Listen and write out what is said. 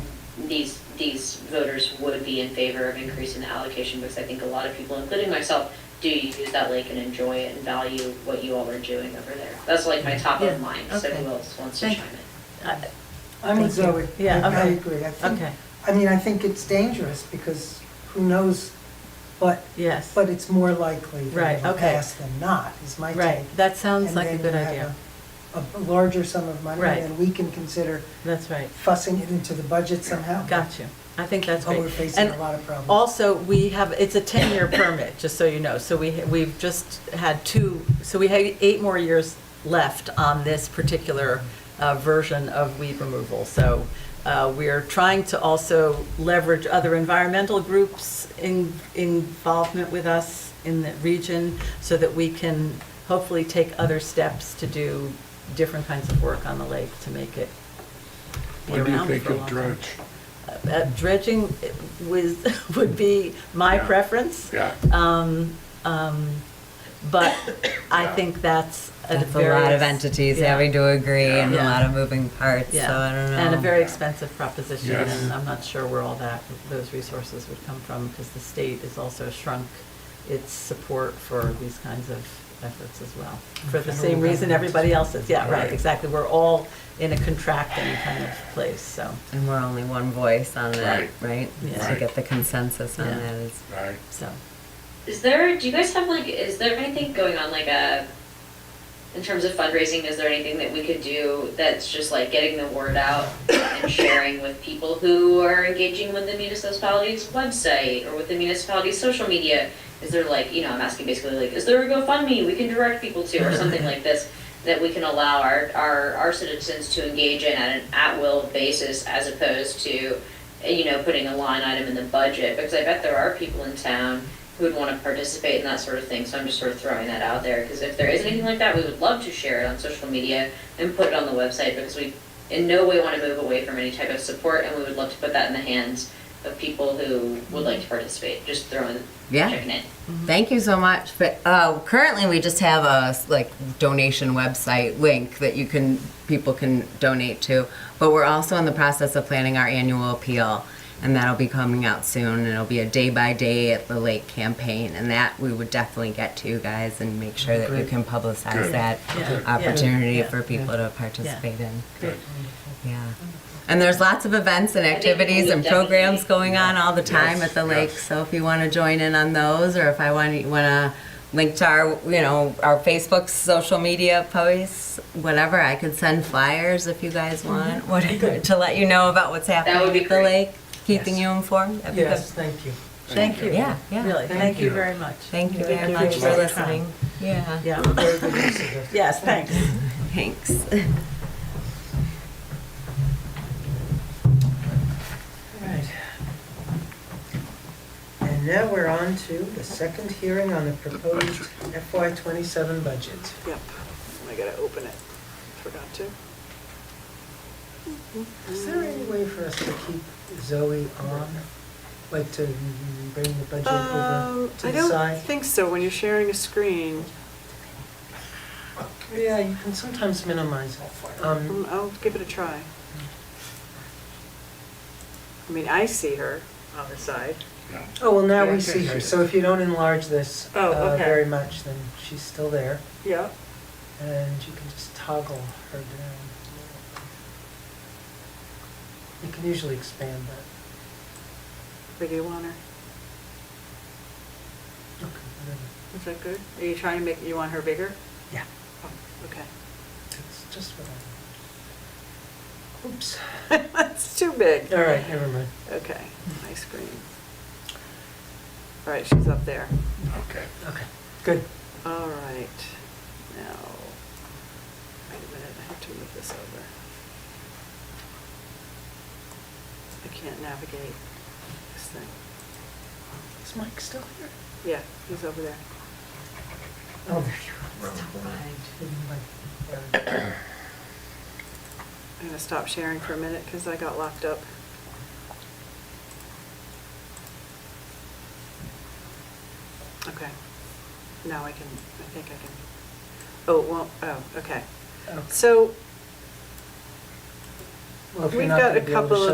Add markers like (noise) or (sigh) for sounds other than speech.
these, these voters would be in favor of increasing the allocation, because I think a lot of people, including myself, do use that lake and enjoy it and value what you all are doing over there. That's like my top Yeah, of mind, so okay. who else wants to Thank- chime in? I'm with Thank Zoe. you. Yeah, I- I okay. agree. I think, Okay, I mean, I think it's dangerous because who knows what, yes, but it's more likely Right, that it'll okay. pass than not, is my take. right, that sounds And like a then good you have idea, A a larger sum of money, Right. and we can consider that's right, fussing it into the budget somehow. got you, I think that's Oh, we're great. facing And a lot of problems. Also, we have, it's a 10-year permit, just so you know, so we, we've just had two, so we have eight more years left on this particular uh, version of weed removal. So uh, we're trying to also leverage other environmental groups' in involvement with us in the region so that we can hopefully take other steps to do different kinds of work on the lake to make it be When do you around think for a you'll long time. dredge? Uh, Dredging was, (laughs) would be my Yeah. preference, Yeah, um, um, but I Yeah. think that's a That's a very. lot of ex- entities yeah, having to agree and a Yeah. lot of moving parts, so yeah. I don't know. And a very expensive proposition, Yes. and I'm not sure where all that, those resources would come from, because the state has also shrunk its support for these kinds of efforts as well. For the same Federal reason government. everybody else is, yeah, right, Right. exactly, we're all in a contracting kind of place, so, And we're only one voice on that, Right. right? Yeah. To Right. get the consensus on Yeah. that is, right. so. Is there, do you guys have like, is there anything going on like a, in terms of fundraising, is there anything that we could do that's just like getting the word out and sharing with people who are engaging with the municipality's website or with the municipality's social media? Is there like, you know, I'm asking basically like, is there a GoFundMe we can direct people to or something like this? That we can allow our, our, our citizens to engage in at an at-will basis as opposed to, you know, putting a line item in the budget? Because I bet there are people in town who would want to participate in that sort of thing, so I'm just sort of throwing that out there, because if there is anything like that, we would love to share it on social media and put it on the website, because we in no way want to move away from any type of support, and we would love to put that in the hands of people who would like to participate, just throwing, yeah. checking it. Thank you so much. But uh, currently, we just have a like donation website link that you can people can donate to. But we're also in the process of planning our annual appeal, and that'll be coming out soon. And it'll be a day by day at the lake campaign, and that we would definitely get to you guys and make sure that you can publicize Good. that Yeah. Yeah. opportunity Yeah. for people to participate in. Good. Yeah. And there's lots of events and I think we activities and would definitely- programs going on all the time Yes, at the lake. yes. So if you want to join in on those, or if I want to, want to link to our, you know, our Facebook, social media posts, whatever, I could send flyers if you guys want, whatever, to let you know about what's would be happening at the great. lake, keeping Yes. you informed. That'd be Yes, thank you. Thank you. Yeah, yeah. Really, thank you very much. good. Thank you Thank very you much very for much. listening. Yeah. Yeah, Very good use of it. yes, thanks. Thanks. (laughs) Right. And now we're on to the second hearing on the proposed FY twenty-seven budget. Yep, I gotta open it. Forgot to. Is there any way for us to keep Zoe on, like to bring the budget over Um, to I the don't side? think so, when you're sharing a screen. Yeah, you can sometimes minimize it. Um, Mm, I'll give it a try. I mean, I see her on the side. Yeah. Oh, well, now we see her, so if you don't enlarge this Oh, uh, okay. very much, then she's still there, Yeah. and you can just toggle her down. a little bit. You can usually expand that. Where do you want her? Okay, whatever. Is that good? Are you trying to make, you want her bigger? Yeah, Oh, Okay. (laughs) it's just what I. (laughs) Oops. That's too big. All right, never mind. Okay, my screen. All right, she's up there. Okay. Okay, good. All right, now, wait a minute, I have to move this over. I can't navigate this thing. Is Mike still here? Yeah, he's over there. Oh, there you are. Didn't like- there. I'm gonna stop sharing for a minute because I got locked up. Okay, now I can, I think I can, oh, well, oh, okay. Okay. (coughs) So, Well, if you're We've not got gonna a be able to couple show of